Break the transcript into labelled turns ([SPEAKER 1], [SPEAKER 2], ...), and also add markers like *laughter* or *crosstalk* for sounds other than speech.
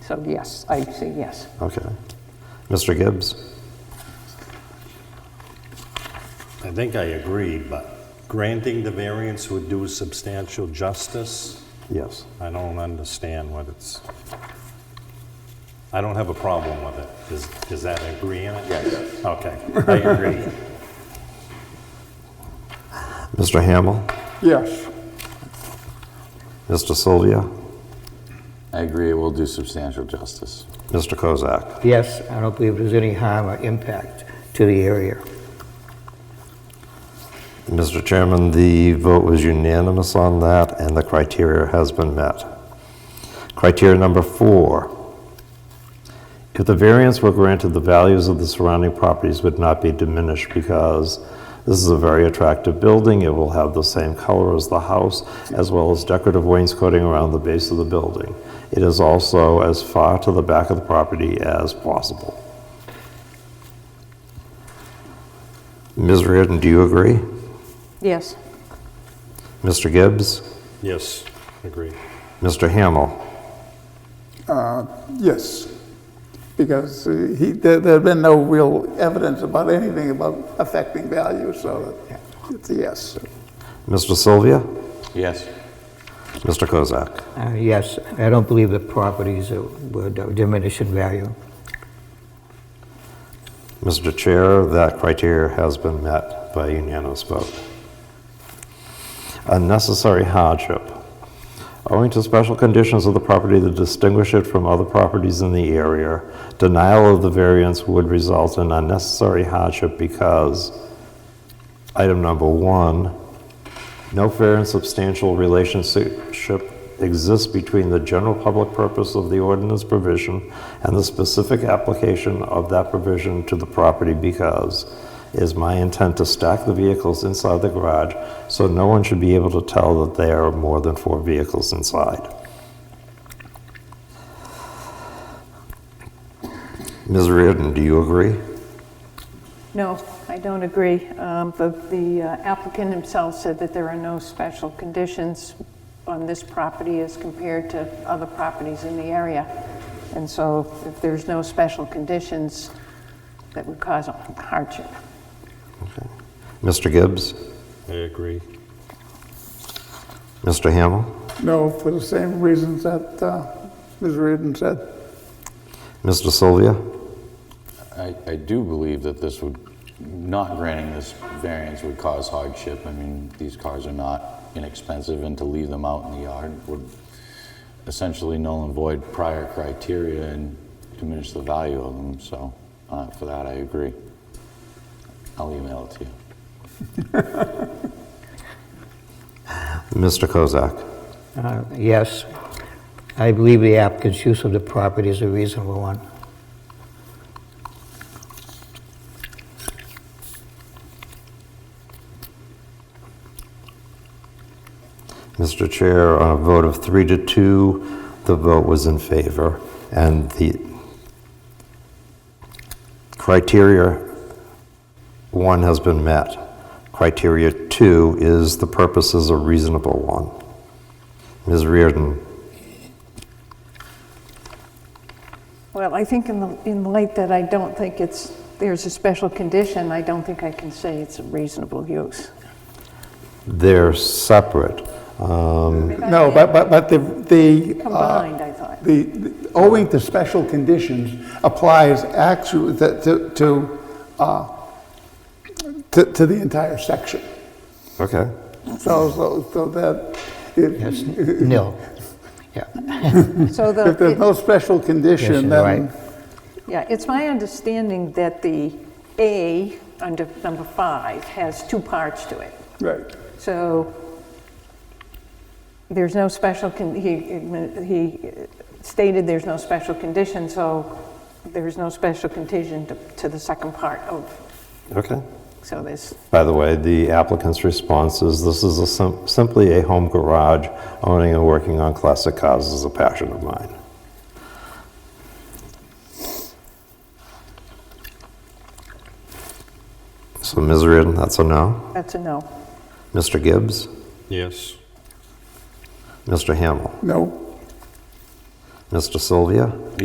[SPEAKER 1] So yes, I say yes.
[SPEAKER 2] Okay. Mr. Gibbs?
[SPEAKER 3] I think I agree, but granting the variance would do substantial justice.
[SPEAKER 2] Yes.
[SPEAKER 3] I don't understand what it's, I don't have a problem with it. Is, is that agreeing? Yes. Okay, I agree.
[SPEAKER 2] Mr. Hamel?
[SPEAKER 4] Yes.
[SPEAKER 2] Mr. Sylvia?
[SPEAKER 5] I agree, it will do substantial justice.
[SPEAKER 2] Mr. Kozak?
[SPEAKER 6] Yes, I don't believe there's any harm or impact to the area.
[SPEAKER 2] Mr. Chairman, the vote was unanimous on that, and the criteria has been met. Criteria number four. If the variance were granted, the values of the surrounding properties would not be diminished because this is a very attractive building. It will have the same color as the house, as well as decorative wainscoting around the base of the building. It is also as far to the back of the property as possible. Ms. Reardon, do you agree?
[SPEAKER 1] Yes.
[SPEAKER 2] Mr. Gibbs?
[SPEAKER 3] Yes, agree.
[SPEAKER 2] Mr. Hamel?
[SPEAKER 4] Yes. Because uh, he, there had been no real evidence about anything about affecting value, so it's a yes.
[SPEAKER 2] Mr. Sylvia?
[SPEAKER 5] Yes.
[SPEAKER 2] Mr. Kozak?
[SPEAKER 6] Uh, Yes, I don't believe the properties would diminish in value.
[SPEAKER 2] Mr. Chair, that criteria has been met by unanimous vote. Unnecessary hardship. Owing to special conditions of the property that distinguish it from other properties in the area, denial of the variance would result in unnecessary hardship because item number one, no fair and substantial relationship exists between the general public purpose of the ordinance provision and the specific application of that provision to the property because it is my intent to stack the vehicles inside the garage so no one should be able to tell that there are more than four vehicles inside. Ms. Reardon, do you agree?
[SPEAKER 1] No, I don't agree. Um, The the uh, applicant himself said that there are no special conditions on this property as compared to other properties in the area. And so if there's no special conditions, that would cause hardship.
[SPEAKER 2] Mr. Gibbs?
[SPEAKER 3] I agree.
[SPEAKER 2] Mr. Hamel?
[SPEAKER 4] No, for the same reasons that uh, Ms. Reardon said.
[SPEAKER 2] Mr. Sylvia?
[SPEAKER 5] I, I do believe that this would, not granting this variance would cause hardship. I mean, these cars are not inexpensive, and to leave them out in the yard would essentially null and void prior criteria and diminish the value of them, so uh, for that, I agree. I'll email it to you.
[SPEAKER 2] Mr. Kozak?
[SPEAKER 6] Uh, Yes, I believe the applicant's use of the property is a reasonable one.
[SPEAKER 2] Mr. Chair, on a vote of three to two, the vote was in favor, and the criteria one has been met. Criteria two is the purpose is a reasonable one. Ms. Reardon,
[SPEAKER 1] Well, I think in the, in light that I don't think it's, there's a special condition, I don't think I can say it's a reasonable use. *laughs*
[SPEAKER 2] they're separate. Um,
[SPEAKER 4] No, but, but, but the, the. uh,
[SPEAKER 1] Combined, I thought.
[SPEAKER 4] The, the- owing to special conditions applies actually to, to, uh, to, to the entire section.
[SPEAKER 2] Okay,
[SPEAKER 4] So, so, so that, if,
[SPEAKER 6] Yes, nil. Yeah,
[SPEAKER 1] So
[SPEAKER 4] if there's
[SPEAKER 1] the,
[SPEAKER 4] no special condition,
[SPEAKER 6] Condition, right.
[SPEAKER 4] then,
[SPEAKER 1] yeah, it's my understanding that the A under number five has two parts to it.
[SPEAKER 4] right.
[SPEAKER 1] So there's no special, con- he he stated there's no special condition, so there's no special condition to- to the second part of,
[SPEAKER 2] okay.
[SPEAKER 1] so there's,
[SPEAKER 2] By the way, the applicant's response is this is a sim- simply a home garage. Owning and working on classic cars is a passion of mine. So, Ms. Reardon, that's a no.
[SPEAKER 1] that's a no.
[SPEAKER 2] Mr. Gibbs,
[SPEAKER 3] Yes.
[SPEAKER 2] Mr. Hamel,
[SPEAKER 4] No?
[SPEAKER 2] Mr. Sylvia,